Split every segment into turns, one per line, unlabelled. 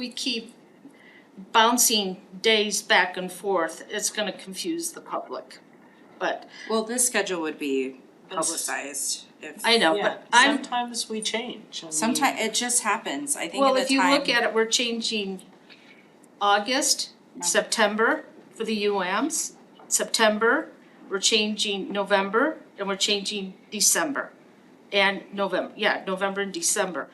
we keep bouncing days back and forth, it's gonna confuse the public. But
Well, this schedule would be publicized if.
I know,
Yeah,
but I'm,
sometimes we change. I mean,
Sometime, it just happens, I think at
well,
the
if you look
time,
at it, we're changing August, September for the UAMs, September, we're changing November, and we're changing December. And November, yeah, November and December.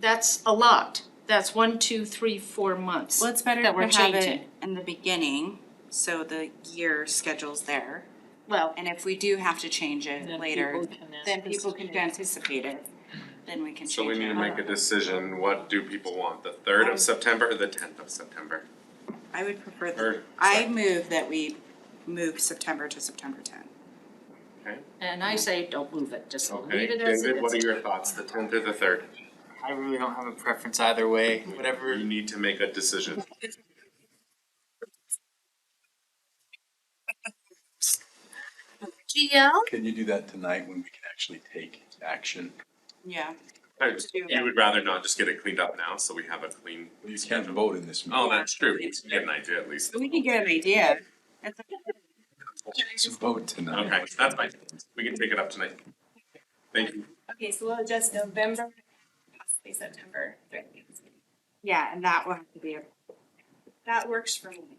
That's a lot. That's one, two, three, four months.
well, it's better
that we're
to have it
changing.
in the beginning, so the year schedule's there.
Well,
And if we do have to change it
then
later,
people can
then people can anticipate
anticipate.
it, then we can change it.
So we need to make a decision, what do people want, the third
Um,
of September or the tenth of September?
I would prefer, the
Or-
I move that we move September to September ten.
and I say, don't move it, just
Okay,
leave it as it is.
David, what are your thoughts, the tenth or the third?
I really don't have a preference either way, whatever.
You need to make a decision.
GL?
Can you do that tonight when we can actually take action?
Yeah.
I- You would rather not just get it cleaned up now, so we have a clean.
You can't vote in this meeting.
Oh, that's true, we can get an idea at least.
We can get an idea. That's-
It's a vote tonight.
Okay, that's fine, we can take it up tonight. Thank you.
Okay, so we'll adjust November, possibly September, three weeks.
Yeah, and that will have to be a
That works for me.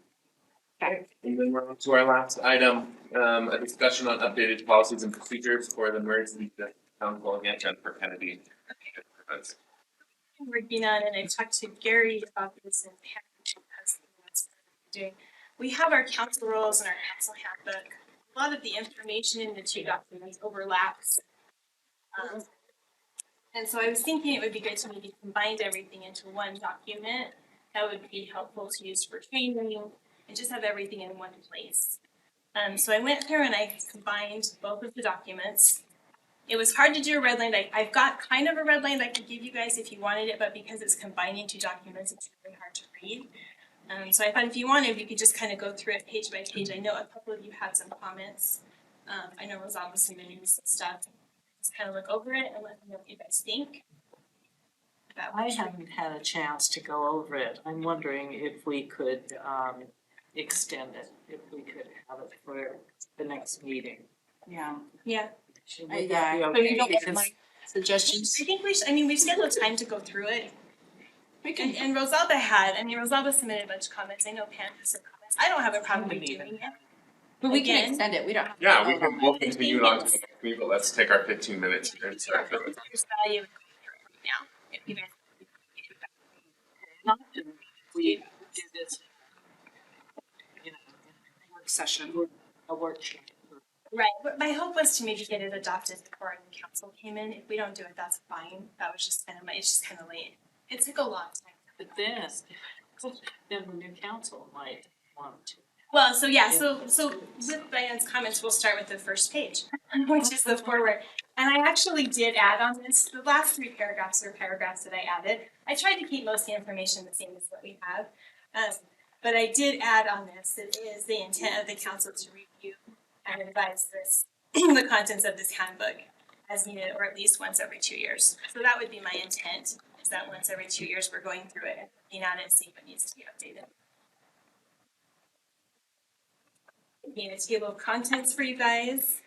And then we're on to our last item, um, a discussion on updated policies and procedures for the emergency council and Jennifer Kennedy.
I'm Working on, and I talked to Gary about this and Pam, because that's what we're doing. We have our council rules and our council handbook. A lot of the information in the two documents overlaps. Um, And so I was thinking it would be good to maybe combine everything into one document. That would be helpful to use for training and just have everything in one place. Um, so I went through and I combined both of the documents. It was hard to do a red line. I, I've got kind of a red line I could give you guys if you wanted it, but because it's combining two documents, it's really hard to read. Um, so I thought if you wanted, we could just kind of go through it page by page. I know a couple of you had some comments. Um, I know Rosalba submitted some stuff. Just kind of look over it and let me know what you guys think. That
I
was-
haven't had a chance to go over it. I'm wondering if we could, um, extend it, if we could have it for the next meeting.
Yeah.
Yeah,
Should
Uh,
we- that be
yeah.
okay? Because-
suggestions?
I think we should, I mean, we've scheduled time to go through it.
We
And, and Rosalba had, I mean, Rosalba submitted a bunch of comments. I know Pam has some comments. I don't have a problem
Wouldn't
with
even
doing it.
have-
But we can
Again.
extend it, we don't have. to
Yeah, we
vote on
can,
it.
we'll continue it on to the next meeting, but let's take our fifteen minutes and start
Yeah,
with.
there's value in going through it right now, if you guys-
Not that We did this. you know,
Work Session.
A workshop.
Right, but my hope was to maybe get it adopted before the council came in, if we don't do it, that's fine, that was just kind of my, it's just kind of late. It took a lot of time.
But then, then the new council might want to.
Well, so yeah, so so with Diane's comments, we'll start with the first page, which is the forward. And I actually did add on this, the last three paragraphs are paragraphs that I added. I tried to keep most of the information the same as what we have. Um, but I did add on this, it is the intent of the council to review and advise this, the contents of this handbook as needed, or at least once every two years. So that would be my intent, is that once every two years, we're going through it and looking at it, seeing what needs to be updated. Made a table of contents for you guys.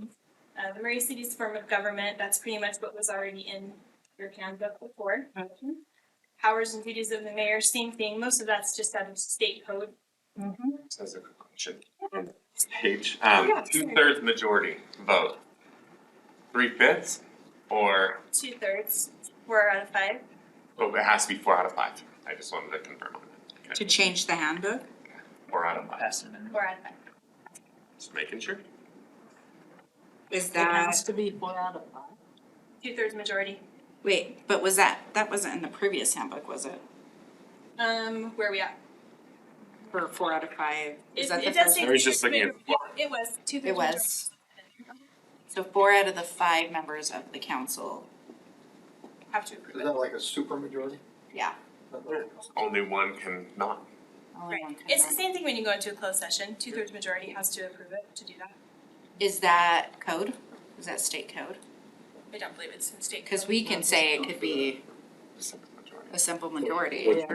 Uh, the Murray City's form of government, that's pretty much what was already in your handbook before. Powers and duties of the mayor, same thing, most of that's just out of state code. Mm-hmm.
This is a good question. Page, um, two thirds majority vote. Three fifths or,
Two thirds, four out of five.
oh, it has to be four out of five. I just wanted to confirm on that.
To
Okay,
change the handbook?
Four out of five,
Four out of five.
just making sure.
Is
It has
that,
to be four out of five.
Two thirds majority.
wait, but was that, that wasn't in the previous handbook, was it?
Um, where are we at?
For four out of five,
It,
is that the
it does
first?
say.
I was just looking at the
two-thirds majority. It was two thirds.
It was. So four out of the five members of the council,
Have to approve
Is
it.
that like a supermajority?
yeah.
Only one can not.
only
Right,
one can
it's the
vote.
same thing when you go into a closed session, two thirds majority has to approve it to do that.
Is that code? Is that state code?
I don't believe it's in state.
Because
code.
we can say it could be
Simple majority.
a simple majority.
Yeah.